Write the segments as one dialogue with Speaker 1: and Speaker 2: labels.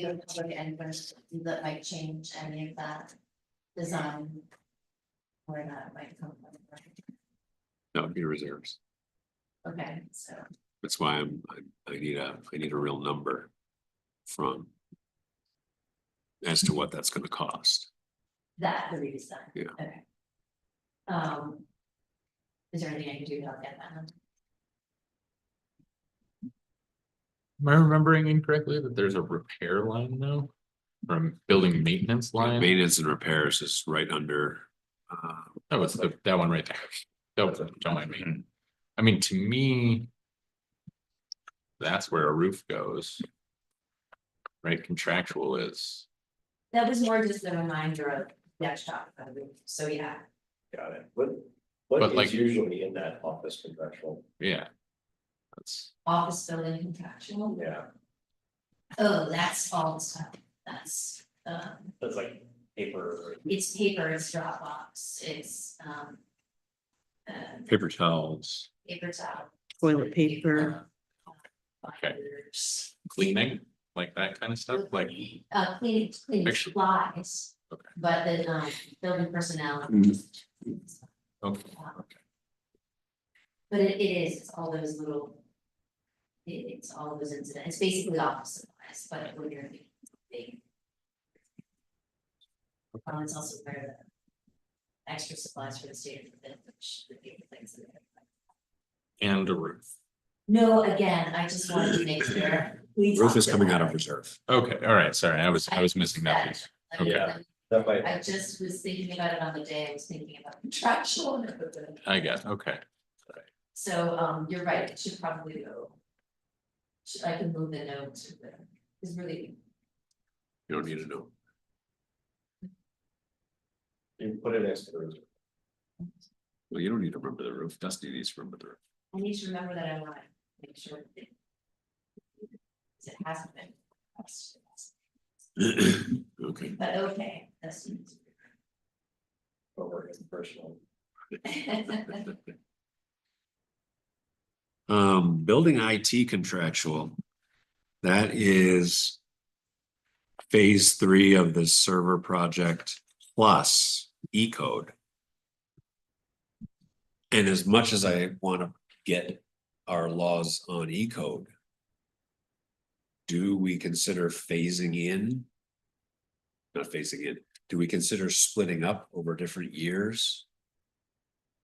Speaker 1: go to public and questions that might change any of that design. Where that might come from,
Speaker 2: That would be reserves.
Speaker 1: okay, so,
Speaker 2: That's why I'm, I'm- I, I need a, I need a real number from as to what that's gonna cost.
Speaker 1: that, the redesign.
Speaker 2: Yeah.
Speaker 1: Okay. Um. Is there anything I can do to help get that?
Speaker 3: Am I remembering incorrectly that there's a repair line though? From building maintenance line?
Speaker 2: Maintenance and repairs is right under, uh,
Speaker 3: That was the, that one right there. That was, it, don't mind me. I mean, to me. That's where a roof goes. Right, contractual is.
Speaker 1: That was more just a reminder of, yeah, talk about it, so yeah,
Speaker 4: Got it. What,
Speaker 3: But
Speaker 4: what
Speaker 3: like-
Speaker 4: is usually in that office contractual?
Speaker 3: Yeah. That's,
Speaker 1: office building contractual,
Speaker 4: Yeah,
Speaker 1: oh, that's all the stuff, that's, um,
Speaker 4: that's like paper.
Speaker 1: it's paper, it's Dropbox, it's, um. Uh,
Speaker 2: paper towels,
Speaker 1: paper towel.
Speaker 5: toilet paper.
Speaker 1: um,
Speaker 3: Okay.
Speaker 1: Fibers,
Speaker 3: cleaning, like that kind of stuff, like,
Speaker 1: Uh, cleaning, cleaning
Speaker 3: Actually-
Speaker 1: supplies,
Speaker 3: Okay. Mm.
Speaker 1: but the, um, building personnel.
Speaker 3: okay,
Speaker 1: But it, it is, it's all those little. It, it's all those incidents, it's basically office supplies, but when you're big- big. Um, it's also part of the. Extra supplies for the state of Vermont, which would be the things that.
Speaker 3: and a roof.
Speaker 1: No, again, I just wanted to make sure. we
Speaker 2: roof is
Speaker 1: talked
Speaker 2: coming out
Speaker 1: about
Speaker 2: of reserve.
Speaker 3: Okay, all right, sorry, I was, I was missing that piece.
Speaker 1: that. I mean,
Speaker 4: Okay. That might,
Speaker 1: I just was thinking about it on the day, I was thinking about contractual. and everything.
Speaker 3: I guess, okay.
Speaker 1: So, um, you're right, it should probably go. Should, I can move the note to the, is really
Speaker 2: You don't need to know.
Speaker 4: you put it next to the reserve.
Speaker 2: Well, you don't need to remember the roof. Dusty needs to remember the roof.
Speaker 1: I need to remember that I wanna make sure. that It it hasn't been. passed.
Speaker 2: Okay,
Speaker 1: But okay, that's.
Speaker 4: but we're in personal.
Speaker 2: um, building IT contractual. That is phase three of the server project plus E code. And as much as I want to get our laws on E code. Do we consider phasing in? Not phasing in, do we consider splitting up over different years?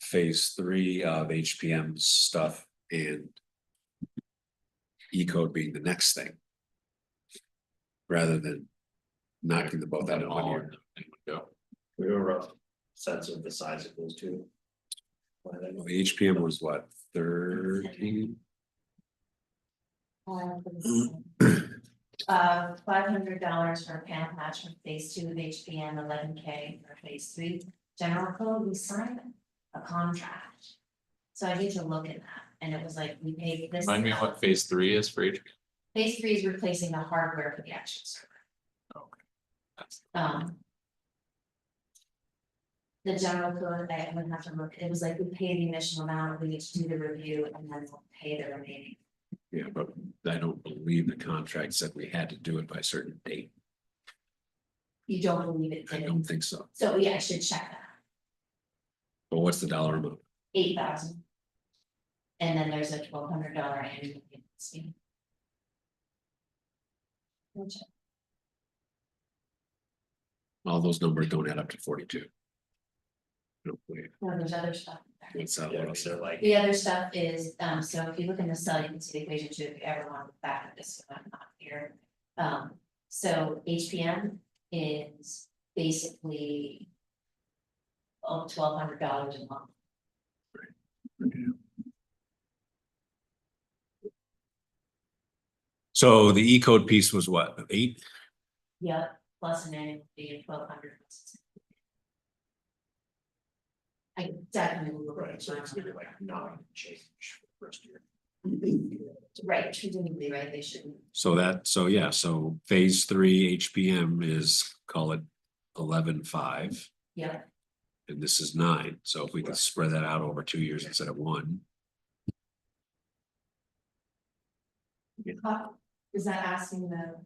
Speaker 2: Phase three of HPM stuff and. E code being the next thing. Rather than knocking them both out in one
Speaker 3: All
Speaker 2: year.
Speaker 3: in one go.
Speaker 4: We have a rough sense of the size of those two. Well, then,
Speaker 2: Well, HPM was what, thirteen?
Speaker 1: Uh, five hundred dollars for a panel match from phase two of HPM, eleven K for phase three. General code, we signed a contract. So I need to look at that, and it was like, we paid this.
Speaker 3: Remind me
Speaker 1: amount.
Speaker 3: what phase three is for each.
Speaker 1: Phase three is replacing the hardware for the action server.
Speaker 3: That's-
Speaker 1: Um. The general code, I would have to look, it was like we pay the initial amount, we each do the review and then we'll pay the remaining.
Speaker 2: Yeah, but I don't believe the contract said we had to do it by a certain date.
Speaker 1: You don't believe it
Speaker 2: I
Speaker 1: did,
Speaker 2: don't think so.
Speaker 1: so yeah, I should check that,
Speaker 2: But what's the dollar amount?
Speaker 1: eight thousand. And then there's a twelve hundred dollar annual maintenance fee. We'll check.
Speaker 2: All those numbers don't add up to forty-two. I don't believe.
Speaker 1: No, there's other stuff. in there.
Speaker 2: What's that?
Speaker 4: Yeah,
Speaker 2: What
Speaker 4: because
Speaker 2: else?
Speaker 4: they're like,
Speaker 1: The other stuff is, um, so if you look in the cell, you can see the equation two, if you ever want to look back at this, one, I'm not here. Um, so HPM is basically. Oh, twelve hundred dollars a month,
Speaker 2: So the E code piece was what, eight?
Speaker 1: yeah, plus an annual fee of twelve hundred. I definitely will look
Speaker 4: right,
Speaker 1: at
Speaker 4: so it's gonna be
Speaker 1: it,
Speaker 4: like not change for the rest of your.
Speaker 1: right, presumably, right, they shouldn't,
Speaker 2: So that, so yeah, so phase three HPM is, call it eleven-five,
Speaker 1: yeah,
Speaker 2: and this is nine. So if we could spread that out over two years instead of one.
Speaker 1: Uh, is that asking the